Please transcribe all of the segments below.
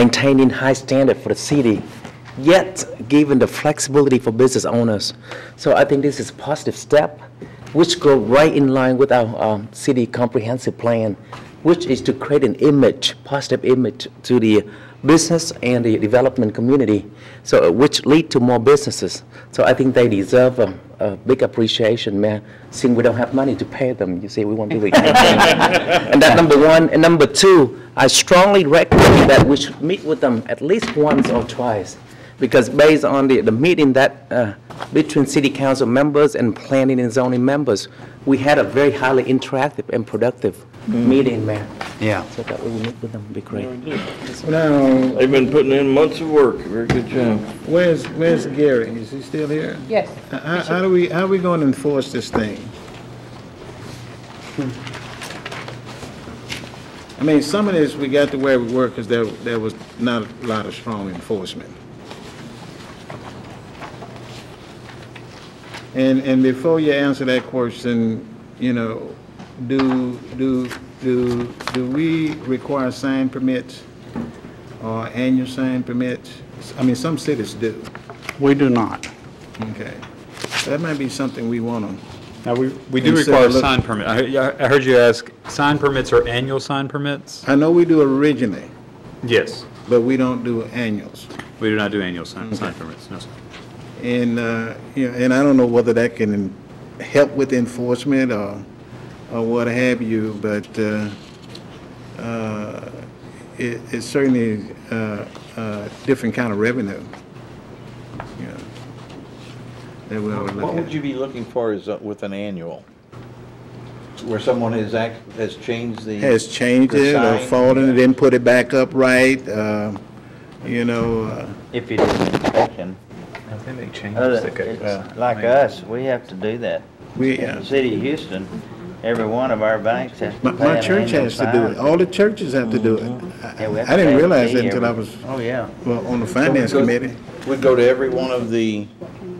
maintaining high standard for the city, yet giving the flexibility for business owners. So I think this is a positive step, which go right in line with our um, city comprehensive plan, which is to create an image, positive image to the business and the development community, so uh, which lead to more businesses. So I think they deserve a, a big appreciation, man. Since we don't have money to pay them, you see, we want to retain them. And that number one. And number two, I strongly recommend that we should meet with them at least once or twice. Because based on the, the meeting that, uh, between city council members and planning and zoning members, we had a very highly interactive and productive meeting, Mayor. Yeah. So that we will meet with them, would be great. Now, They've been putting in months of work, very good job. where's, where's Gary? Is he still here? Uh, Yes. How, how do we, how are we gonna enforce this thing? I mean, some of this, we got to where we were, because there, there was not a lot of strong enforcement. And, and before you answer that question, you know, do, do, do, do we require sign permits? Or annual sign permits? I mean, some cities do. We do not. Okay. That might be something we want to, Now, we, we And do so require look- sign permit. I, yeah, I heard you ask, sign permits are annual sign permits? I know we do originally, Yes. but we don't do annuals. We do not do annual sign, sign permits, no, sir. And, uh, you know, and I don't know whether that can help with enforcement or, or what have you, but uh, uh, it it's certainly uh, a different kind of revenue. you know, That we ought to What look would you at. be looking for is uh, with an annual? Where someone has act, has changed the. Has changed the it or sign? fallen it, didn't put it back up right, uh, you know, uh, If you do an inspection, Oh, Yeah. like us, we have to do that. we. In uh, the city of Houston, every one of our banks has to My, pay my an church annual has to do fine. it. All the churches have to do it. I- Yeah, we have I to pay didn't a realize fee that until I every- was, Oh, yeah. well, on the finance committee. We go to every one of the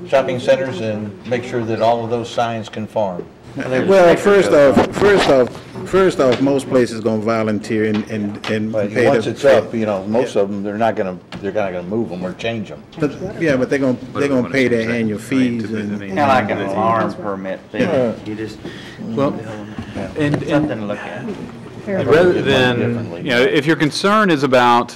shopping centers and make sure that all of those signs conform. Well, first off, first off, first off, most places gonna volunteer and, and, and But pay once the- it's up, you know, most of them, they're not gonna, they're not gonna move them or change them. But, yeah, but they're gonna, they're gonna pay their annual fees and, Kinda like an alarm permit Yeah. fee. You just, Well, and, and something to look at. rather than, differently. you know, if your concern is about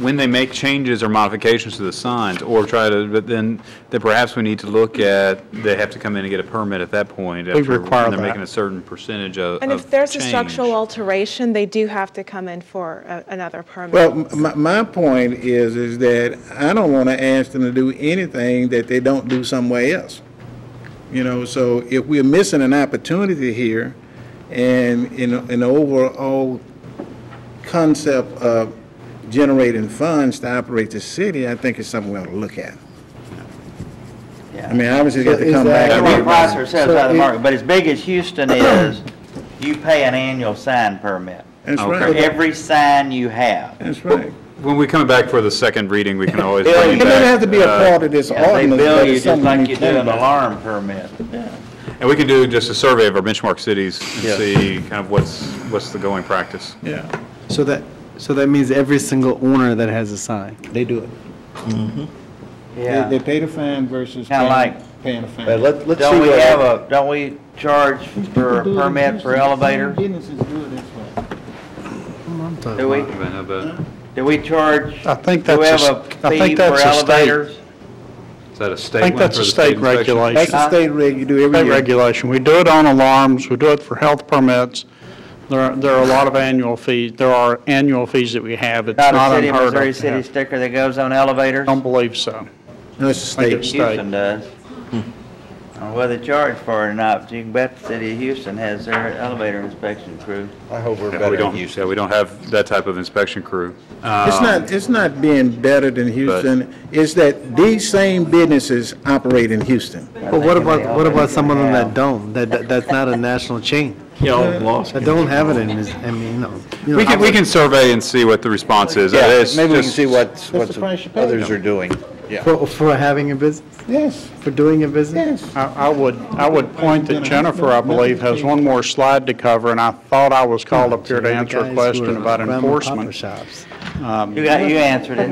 when they make changes or modifications to the signs or try to, but then, then perhaps we need to look at, they have to come in and get a permit at that point. We require They're that. making a certain percentage of, And of if there's a change. structural alteration, they do have to come in for a- another permit. well, my, my point is, is that I don't wanna ask them to do anything that they don't do somewhere else. You know, so if we're missing an opportunity here, and in, in the overall concept of generating funds to operate the city, I think it's something we ought to look at. I mean, obviously, you got to come back. Everyone price ourselves out of the market, but as big as Houston is, you pay an annual sign permit That's for right, every sign you have. that's right. When we come back for the second reading, we can always Bill, bring It it doesn't back, have to be a uh, part of this Yeah, They ordinance, bill but you it's just something like you you do can an do. alarm permit. And we can do just a survey of our benchmark cities and see kind of what's, what's the going practice. Yeah, So that, so that means every single owner that has a sign. they do it. They, Yeah. they pay the fine versus Kinda paying, like- paying the fine. But let, let's see Don't we what have a, don't we charge for a permit for elevators? Businesses do it this way. Do we? Do we charge? I think that's a s- I think that's a state- Is that a state I think one that's for a the state inspection? That's regulation, the state reg, you do every state year. regulation. We do it on alarms, we do it for health permits. There are, there are a lot of annual fees, there are annual fees that we have. It's Not not a city of unheard of. Missouri to city have. sticker that goes on elevators? Don't believe so. No, it's the state. State. Hmm. Houston does. Or whether they charge for it or not, but you can bet the city of Houston has their elevator inspection crew. I hope we're Yeah, We better than don't, Houston. yeah, we don't have that type of inspection crew. It's Uh, Um, not, it's not being better than Houston, it's that these same businesses operate in Houston. But what about, what about someone that don't, that, that's not a national chain? That don't have it in, I mean, you know. We can, we can survey and see what the response is. Yeah, It's maybe we can just- see what, what the price you pay. others are doing. Yeah. For, for having a business, Yes, for doing a business? yes. I I would, I would point that Jennifer, I believe, has one more slide to cover, and I thought I was called up here to The answer guys a who question are about grandma and papa enforcement. shops. You got, you answered it.